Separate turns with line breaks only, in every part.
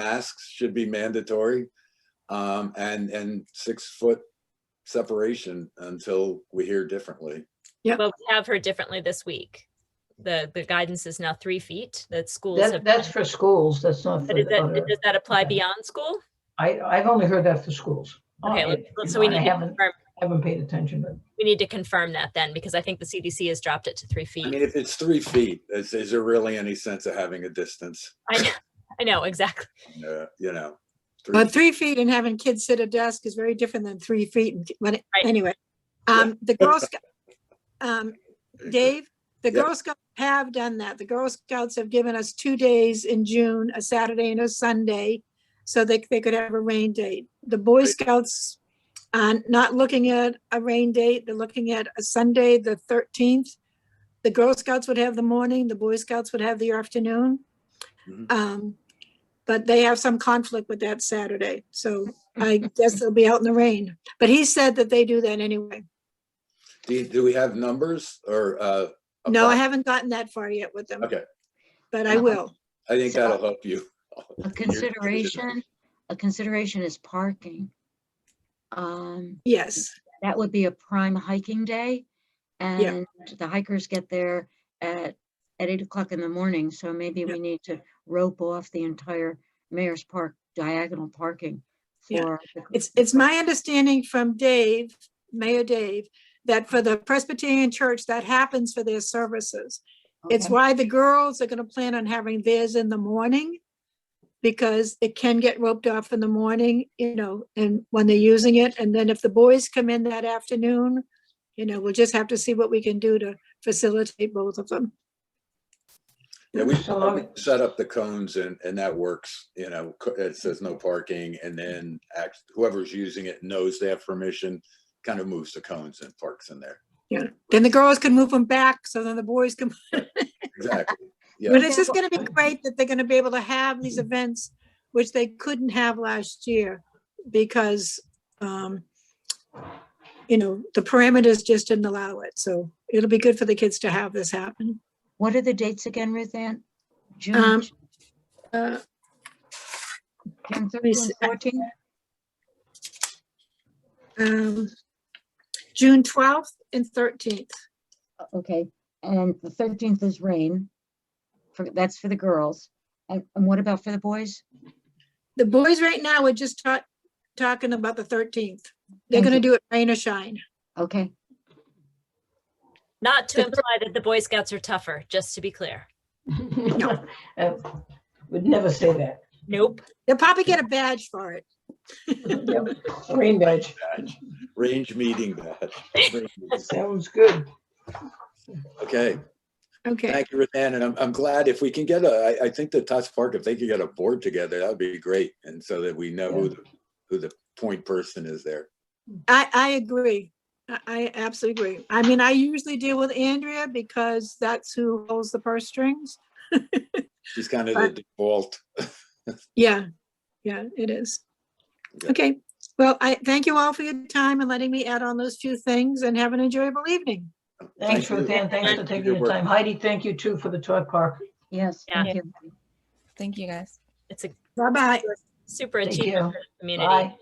masks should be mandatory. Um, and, and six foot separation until we hear differently.
But we have heard differently this week. The, the guidance is now three feet that schools have.
That, that's for schools, that's not for
But is
the
that,
other.
does that apply
okay.
beyond school?
I, I've only heard that for schools.
Okay,
Oh, I-
let's- let's- so we
you know,
need
I
to
haven't,
confirm,
haven't paid attention, but
we need to confirm that then, because I think the CDC has dropped it to three
I
feet.
mean, if it's three feet, is, is there really any sense of having a distance?
I know, I know, exactly.
Uh, you know? three
But
feet.
three feet and having kids sit at a desk is very different than three feet, and- but
Right.
anyway. Um, the Girl Scout, um, Dave, the
Yeah.
Girl Scouts have done that. The Girl Scouts have given us two days in June, a Saturday and a Sunday, so they, they could have a rain date. The Boy
Right.
Scouts are not looking at a rain date, they're looking at a Sunday, the thirteenth. The Girl Scouts would have the morning, the Boy Scouts would have the afternoon.
Mhm.
Um, but they have some conflict with that Saturday, so I guess they'll be out in the rain. But he said that they do that anyway.
Do, you- do we have numbers or, uh?
No, I
approx-
haven't gotten that far yet with them,
Okay,
but I will.
I think
So-
that'll help you.
A consideration, a consideration is parking. Um,
Yes,
that would be a prime hiking day. And the hikers get there at, at eight o'clock in the morning, so maybe
Yeah.
we need to rope off the entire Mayor's Park diagonal parking
Yeah.
for. the-
it's, it's my understanding from Dave, Mayor Dave, that for the Presbyterian Church, that happens for their services. It's
Okay.
why the girls are gonna plan on having theirs in the morning. Because it can get roped off in the morning, you know, and when they're using it, and then if the boys come in that afternoon. You know, we'll just have to see what we can do to facilitate both of them.
Yeah, we
So long-
we set up the cones and, and that works, you know, co- it says no parking and then act- whoever's using it knows they have permission, kind of moves the cones and parks in there.
Then the girls can move them back, so then the boys can,
Exactly. Yeah.
but it's just
Yeah.
gonna be great that they're gonna be able to have these events, which they couldn't have last year. Because, um, you know, the parameters just didn't allow it, so it'll be good for the kids to have this happen.
What are the dates again, Ruth Ann? June,
Um, Uh,
June
me
thirteenth,
see.
fourteenth?
um, June twelfth and thirteenth.
Okay, and the thirteenth is rain. For, that's for the girls. And, and what about for the boys?
The boys right now are just ta- talking about the thirteenth. They're gonna do it rain or shine.
Okay,
Not to
The-
imply that the Boy Scouts are tougher, just to be clear.
Uh, Would never say that.
Nope.
They'll probably get a badge for it.
Yep, Rain badge,
Range meeting that.
sounds good.
Okay,
Okay,
thank you, Ruthann, and I'm, I'm glad if we can get a, I, I think the Tots Park, if they could get a board together, that would be great. And so that we know who, the who the point person is there.
I, I agree. I, I absolutely agree. I mean, I usually deal with Andrea because that's who holds the purse strings.
She's kind of the default.
Yeah, yeah, it is.
Yeah.
Okay, well, I thank you all for your time and letting me add on those few things and have an enjoyable evening.
Thanks,
Thank
Ruth
you.
Ann, thanks for
Thank
taking
you.
your time. Heidi, thank you too for the toy park.
yes,
Yeah.
thank you.
Thank you, guys.
It's a
Bye-bye.
super
Thank
achievement
you.
for the community.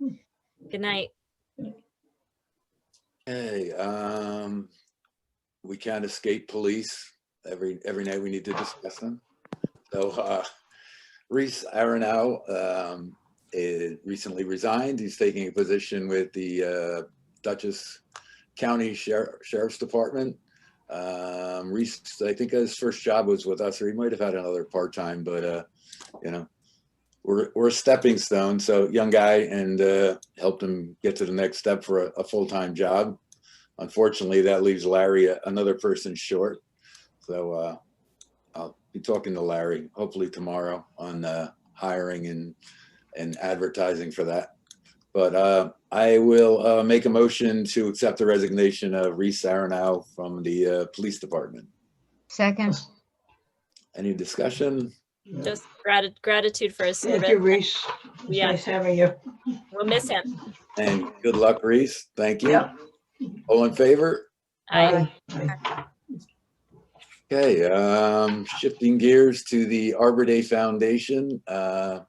Bye.
Good night.
Hey, um, we can't escape police. Every, every night we need to discuss them. So, uh, Reese Aronow, um, eh, recently resigned. He's taking a position with the, uh, Dutchess County Sher- Sheriff's Department. Um, Reese, I think his first job was with us, or he might have had another part-time, but, uh, you know, we're, we're a stepping stone. So young guy and, uh, helped him get to the next step for a, a full-time job unfortunately, that leaves Larry a- another person short. So uh, I'll be talking to Larry hopefully tomorrow on uh, hiring and and advertising for that. But uh, I will uh, make a motion to accept the resignation of Reese Arenow from the uh, police department.
Second,
Any discussion?
Just grati- gratitude for his
Thank you,
service.
Reese. It's
Yeah.
nice having you.
We'll miss him.
And good luck, Reese. Thank you.
Yeah.
All in favor?
I,
Bye.
Okay, um, shifting gears to the Arbor Day Foundation, uh,